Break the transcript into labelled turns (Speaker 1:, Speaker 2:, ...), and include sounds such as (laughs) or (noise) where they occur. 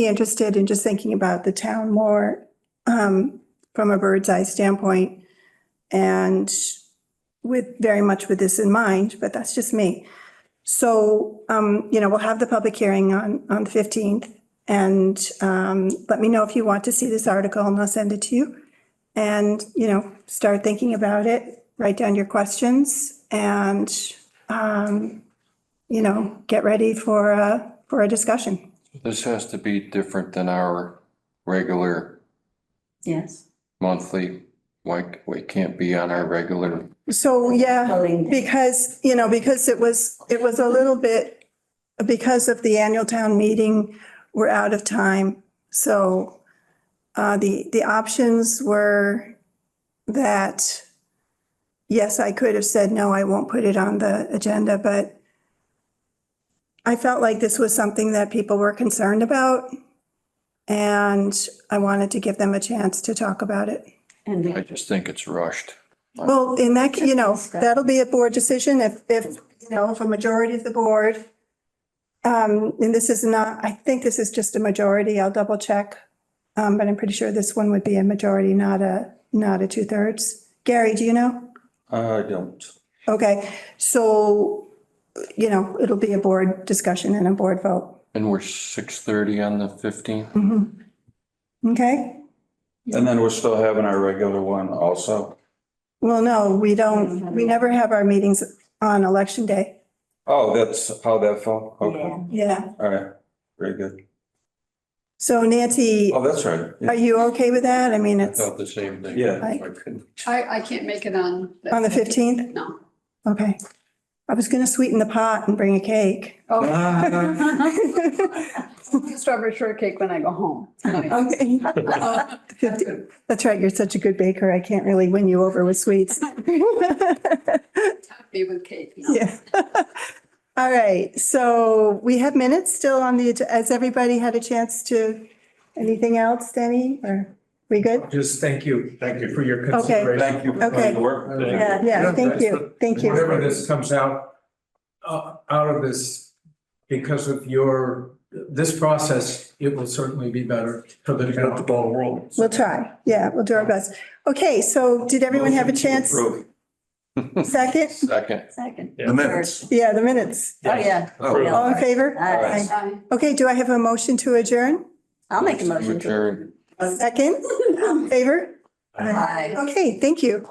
Speaker 1: be interested in just thinking about the town more um, from a bird's eye standpoint. And with, very much with this in mind, but that's just me. So, um, you know, we'll have the public hearing on, on the 15th. And um, let me know if you want to see this article and I'll send it to you. And, you know, start thinking about it, write down your questions and, um, you know, get ready for, a- for a discussion.
Speaker 2: This has to be different than our regular
Speaker 3: Yes.
Speaker 2: monthly, like, we can't be on our regular.
Speaker 1: So, yeah,
Speaker 3: Voting.
Speaker 1: because, you know, because it was, it was a little bit, because of the annual town meeting, we're out of time. So uh, the, the options were that, yes, I could have said, no, I won't put it on the agenda, but I felt like this was something that people were concerned about. And I wanted to give them a chance to talk about it.
Speaker 3: And
Speaker 2: I
Speaker 3: we-
Speaker 2: just think it's rushed.
Speaker 1: Well, in that, you know, that'll be a board decision if, if, you know, if a majority of the board. Um, and this is not, I think this is just a majority. I'll double check. Um, but I'm pretty sure this one would be a majority, not a, not a two thirds. Gary, do you know?
Speaker 4: I don't.
Speaker 1: Okay, so, you know, it'll be a board discussion and a board vote.
Speaker 2: And we're six thirty on the fifteenth?
Speaker 1: Mhm. Okay,
Speaker 4: And then we're still having our regular one also.
Speaker 1: well, no, we don't, we never have our meetings on election day.
Speaker 4: Oh, that's how that fell? Okay,
Speaker 3: yeah,
Speaker 1: Yeah,
Speaker 4: all right, very good.
Speaker 1: so Nancy,
Speaker 4: Oh, that's right.
Speaker 1: are you okay with that? I mean,
Speaker 2: I
Speaker 1: it's.
Speaker 2: thought the same thing.
Speaker 4: Yeah.
Speaker 1: Like-
Speaker 5: I, I can't make it on.
Speaker 1: On the 15th?
Speaker 5: No.
Speaker 1: Okay. I was going to sweeten the pot and bring a cake. (laughs)
Speaker 5: Oh,
Speaker 4: Ah,
Speaker 5: (laughs) strawberry shortcake when I go home. Uh, (laughs) Nice.
Speaker 1: (laughs) Okay. That's right, you're such a good baker. I can't really win you over with sweets. (laughs)
Speaker 5: Happy with cake. no.
Speaker 1: Yeah. (laughs) All right, so we have minutes still on the, has everybody had a chance to, anything else, Denny, or we good?
Speaker 6: Just thank you. Thank you. For your
Speaker 1: Okay.
Speaker 6: consideration.
Speaker 4: Thank you for
Speaker 1: Okay.
Speaker 4: the work.
Speaker 3: Yeah.
Speaker 1: Yeah, thank
Speaker 6: that's
Speaker 1: you, thank you.
Speaker 6: Whatever this comes out, uh, out of this, because of your, this process, it will certainly be better for the development.
Speaker 4: ball rolling.
Speaker 1: We'll try, yeah, we'll do our best. Okay, so did everyone have a chance? Second?
Speaker 2: Second,
Speaker 3: second.
Speaker 4: The minutes.
Speaker 1: Yeah, the minutes.
Speaker 3: Oh, yeah.
Speaker 4: Oh,
Speaker 1: All in favor?
Speaker 3: Aye.
Speaker 5: Bye.
Speaker 1: Okay, do I have a motion to adjourn?
Speaker 3: I'll (laughs) make a motion to.
Speaker 2: Adjourn.
Speaker 1: Second, favor?
Speaker 3: Aye.
Speaker 1: Okay, thank you.